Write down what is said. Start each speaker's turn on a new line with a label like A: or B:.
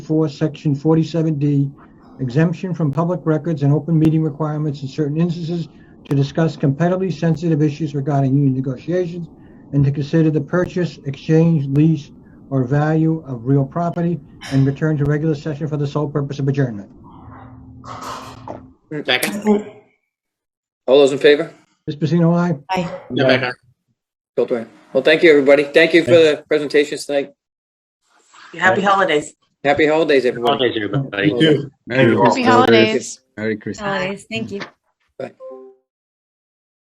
A: four, section forty-seven D, exemption from public records and open meeting requirements in certain instances to discuss competitively sensitive issues regarding union negotiations and to consider the purchase, exchange, lease, or value of real property and return to regular session for the sole purpose of adjournment.
B: Second,
C: All those in favor?
A: Ms. Pacino, aye?
D: Aye.
B: Rebecca.
C: Cool, aye. Well, thank you, everybody. Thank you for the presentations tonight.
D: Happy holidays.
C: Happy holidays, everyone.
B: Holidays, everybody.
E: Thank you.
F: Happy holidays.
G: holidays. Thank you.